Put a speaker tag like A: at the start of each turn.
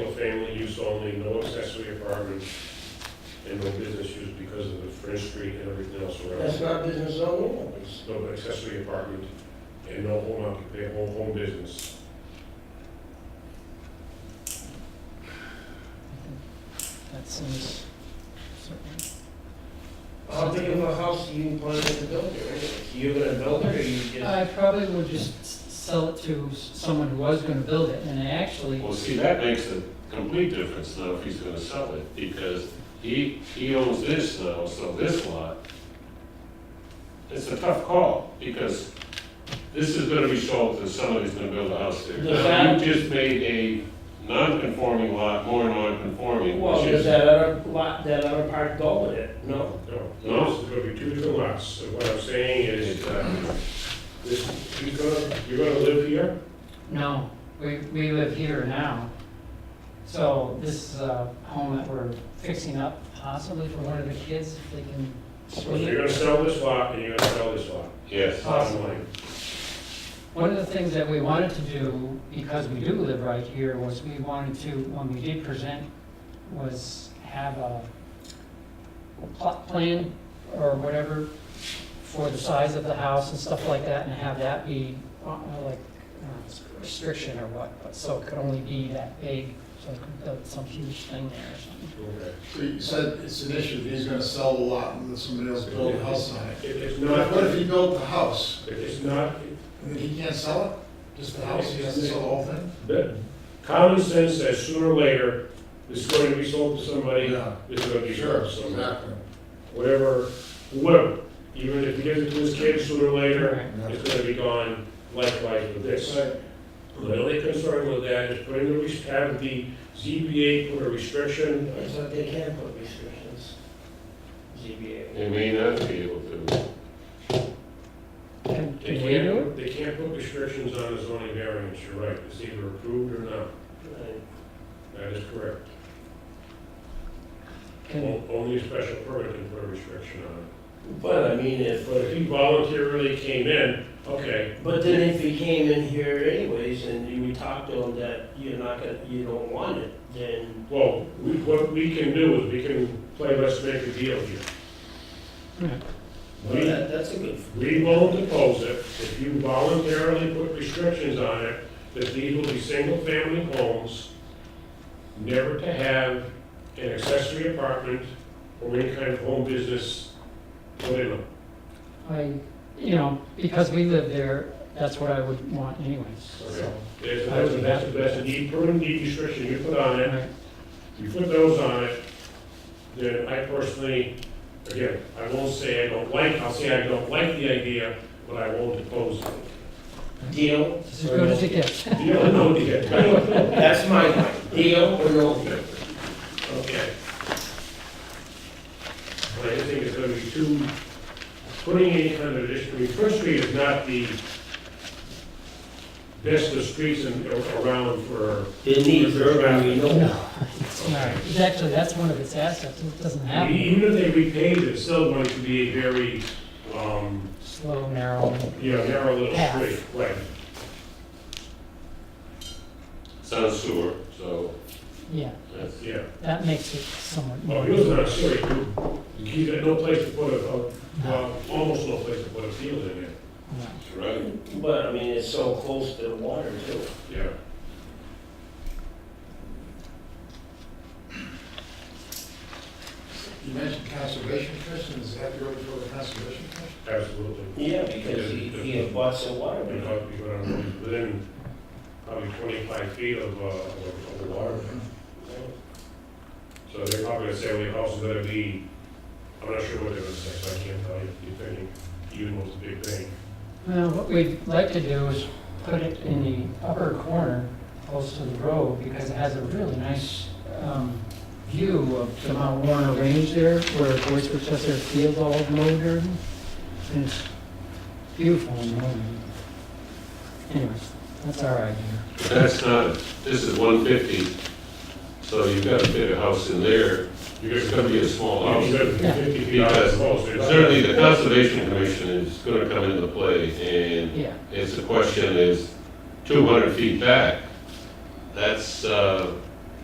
A: single-family use only, no accessory apartments, and no business use because of the French Street and everything else around.
B: That's not business zone one.
A: It's No accessory apartment and no home occupation, home, home business.
C: That seems certain.
B: How big of a house do you plan to build there anyway? You're gonna build it or you just?
C: I probably would just s- sell it to s- someone who was gonna build it, and I actually,
D: Well, see, that makes a complete difference now if he's gonna sell it, because he, he owns this now, so this lot, it's a tough call, because this is gonna be sold to somebody's gonna build a house there.
B: Does that-
D: Now, you just made a non-conforming lot more non-conforming,
B: Well,
D: which
B: does
D: is,
B: that other lot, that other part go with it? No.
A: No, no, this is gonna be two different lots, so what I'm saying is, uh, this, you're gonna, you're gonna live here?
C: no, we, we live here now. So this is a home that we're fixing up possibly for one of the kids, if they can
A: So
C: swing
A: you're
C: it.
A: gonna sell this lot and you're gonna sell this lot.
D: yes.
C: Awesome.
A: Bottom line.
C: One of the things that we wanted to do, because we do live right here, was we wanted to, when we did present, was have a plot plan or whatever for the size of the house and stuff like that, and have that be uh, like uh, restriction or what, but so it could only be that big, so it could build some huge thing there or something.
A: Okay.
E: So you said it's an issue, that he's gonna sell the lot and then somebody else build a house on it.
A: If it's
E: But what if
A: not,
E: he built the house,
A: if it's not,
E: and then he can't sell it? Just the house, he has to sell the whole thing?
A: the common sense says sooner or later, this is going to be sold to somebody,
E: Yeah,
A: this is gonna be sold
E: sure,
A: to somebody.
E: exactly.
A: whatever, whoever, even if he gives it to his kids sooner or later,
C: Right.
A: it's gonna be gone likewise with this. The only concern with that is putting the, res- have the ZBA put a restriction,
B: It's like they can put restrictions. ZBA.
D: They may not be able to,
C: Can
A: they
C: can we do it?
A: can't, they can't put restrictions on a zoning variance, you're right, it's either approved or not, that is correct.
C: Can,
A: O- Only a special permit can put a restriction on it.
B: But I mean, if,
A: But if he voluntarily came in, okay,
B: but then if he came in here anyways and you talked to him that you're not gonna, you don't want it, then
A: well, we, what we can do is we can play let's make a deal here.
B: well, that, that's a good.
A: We won't oppose it if you voluntarily put restrictions on it, that these will be single-family homes, never to have an accessory apartment or any kind of home business put in them.
C: I, you know, because we live there, that's what I would want anyways, so.
A: That's, that's- that's, that's a need, permanent need restriction you put on it,
C: Right.
A: you put those on it, then I personally, again, I won't say I don't like, I'll say I don't like the idea, but I won't oppose it.
B: Deal?
C: It's as good as it gets.
A: You don't know yet.
B: That's my line. Deal or no deal?
A: Okay. But I think it's gonna be too, putting any kind of addition, I mean, First Street is not the best of streets in, around for,
B: It needs urban renewal.
C: It's Actually, that's one of its assets, it doesn't have it.
A: e, even if they repaved it, it's still going to be a very, um,
C: slow, narrow.
A: you know, narrow little
C: Path.
A: street, right?
D: sound sewer, so
C: Yeah,
D: that's,
A: Yeah.
C: that makes it somewhat
A: Well,
C: more.
A: he was not sure, you, you got no place to put a, a- well, almost no place to put a field in there,
C: Yeah.
D: right.
B: But I mean, it's so close to the water too.
A: yeah.
E: You mentioned conservation commission, is that your, for the conservation commission?
A: Absolutely.
B: Yeah, because he, he had bought some water.
A: We
B: but-
A: thought we were on- within probably twenty-five feet of, uh, of of the water. So they're probably gonna say, well, your house is gonna be, I'm not sure what they're gonna say, so I can't tell you, depending, even what's the big thing.
C: Well, what we'd like to do is put it in the upper corner, close to the road, because it has a really nice um, view of the Mount Warner Range there, where Voice Processor Field all mowed there. And it's beautiful in the morning. Anyways, that's our idea.
D: But that's not, this is one fifty, so you've got to fit a house in there, it's gonna be a small house.
A: You're gonna be
C: Yeah.
A: fifty feet out of the house, you're not-
D: Certainly, the Conservation Commission is gonna come into play, and
C: Yeah,
D: it's, the question is, two hundred feet back, that's, uh,